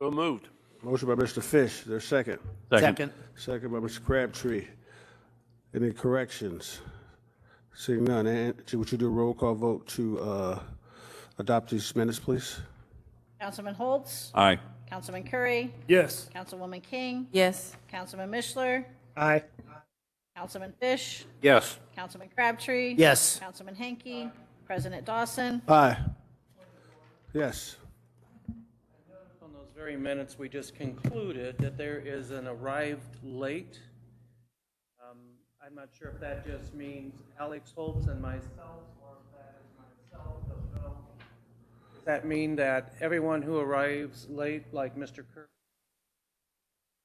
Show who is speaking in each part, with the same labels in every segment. Speaker 1: So moved.
Speaker 2: Motion by Mr. Fish, there's second.
Speaker 3: Second.
Speaker 2: Second by Mr. Crabtree. Any corrections? Seeing none, and would you do a roll call vote to uh, adopt these minutes, please?
Speaker 4: Councilman Holtz,
Speaker 3: Aye.
Speaker 4: Councilman Curry,
Speaker 1: Yes.
Speaker 4: Councilwoman King,
Speaker 5: Yes.
Speaker 4: Councilman Mishler,
Speaker 6: Aye.
Speaker 4: Councilman Fish,
Speaker 1: Yes.
Speaker 4: Councilman Crabtree.
Speaker 6: Yes.
Speaker 4: Councilman Hanky, President Dawson.
Speaker 2: Aye. Yes.
Speaker 7: On those very minutes, we just concluded that there is an arrived late. Um, I'm not sure if that just means Alex Holtz and myself, or if that is myself, don't know. Does that mean that everyone who arrives late, like Mr. Kirk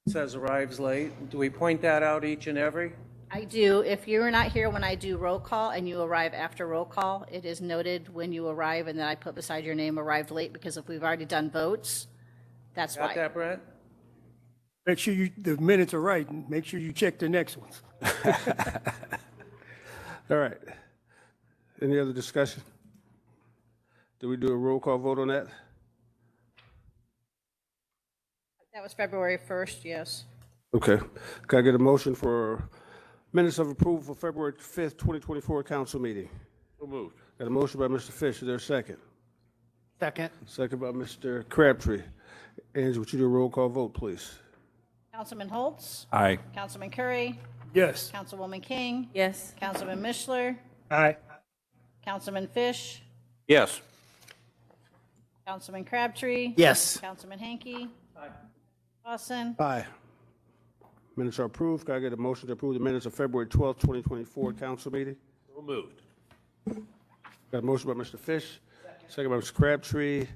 Speaker 7: says arrives late, do we point that out each and every?
Speaker 4: I do, if you are not here when I do roll call and you arrive after roll call, it is noted when you arrive and then I put beside your name arrived late because if we've already done votes, that's
Speaker 7: Got
Speaker 4: why.
Speaker 7: that, Brent?
Speaker 8: Make sure you, the minutes are right, and make sure you check the next ones.
Speaker 2: All right. Any other discussion? Do we do a roll call vote on that?
Speaker 4: That was February 1st, yes.
Speaker 2: Okay. Can I get a motion for minutes of approval for February 5th, 2024 council meeting?
Speaker 1: So moved.
Speaker 2: Got a motion by Mr. Fish, is there a second?
Speaker 6: Second.
Speaker 2: Second by Mr. Crabtree. Angie, would you do a roll call vote, please?
Speaker 4: Councilman Holtz,
Speaker 3: Aye.
Speaker 4: Councilman Curry,
Speaker 8: Yes.
Speaker 4: Councilwoman King,
Speaker 5: Yes.
Speaker 4: Councilman Mishler,
Speaker 6: Aye.
Speaker 4: Councilman Fish,
Speaker 1: Yes.
Speaker 4: Councilman Crabtree.
Speaker 6: Yes.
Speaker 4: Councilman Hanky. Dawson.
Speaker 2: Aye. Minutes are approved. Can I get a motion to approve the minutes of February 12th, 2024 council meeting?
Speaker 1: So moved.
Speaker 2: Got a motion by Mr. Fish, second by Mr. Crabtree.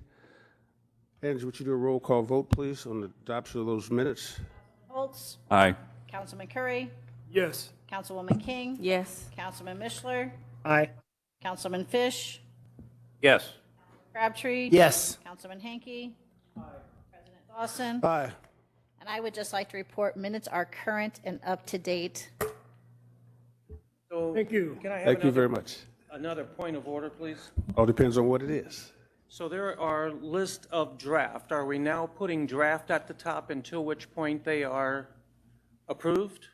Speaker 2: Angie, would you do a roll call vote, please, on the adoption of those minutes?
Speaker 4: Holtz,
Speaker 3: Aye.
Speaker 4: Councilman Curry,
Speaker 8: Yes.
Speaker 4: Councilwoman King.
Speaker 5: Yes.
Speaker 4: Councilman Mishler,
Speaker 6: Aye.
Speaker 4: Councilman Fish,
Speaker 1: Yes.
Speaker 4: Crabtree.
Speaker 6: Yes.
Speaker 4: Councilman Hanky. President Dawson.
Speaker 2: Aye.
Speaker 4: And I would just like to report minutes are current and up to date.
Speaker 7: So
Speaker 8: Thank you.
Speaker 7: can I have
Speaker 2: Thank you very
Speaker 7: another,
Speaker 2: much.
Speaker 7: another point of order, please?
Speaker 2: All depends on what it is.
Speaker 7: So there are list of draft. Are we now putting draft at the top until which point they are approved?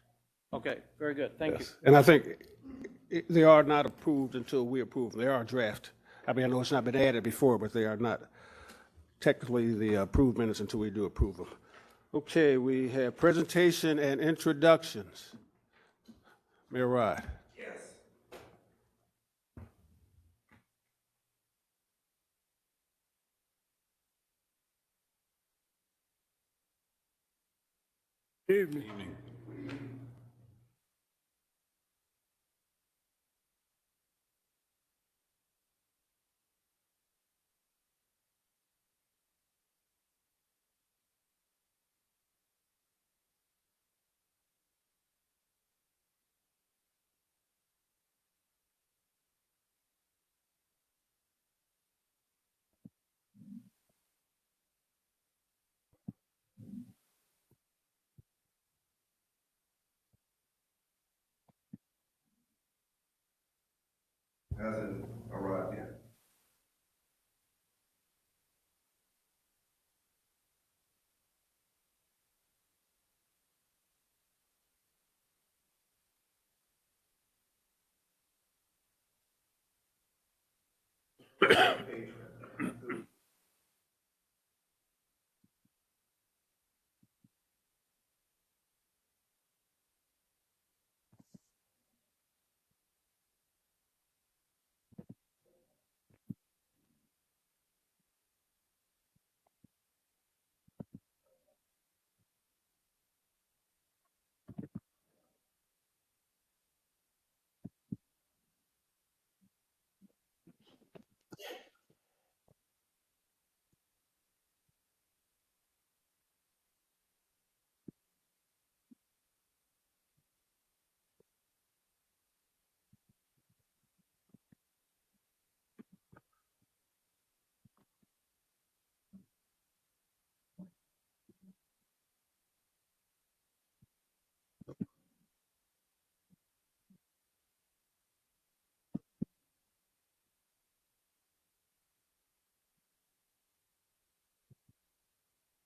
Speaker 7: Okay, very good, thank you.
Speaker 2: And I think i- they are not approved until we approve. They are draft. I mean, I know it's not been added before, but they are not technically the approved minutes until we do approve them. Okay, we have presentation and introductions. Mayor Rod.
Speaker 8: Good evening.
Speaker 9: hasn't arrived yet. Page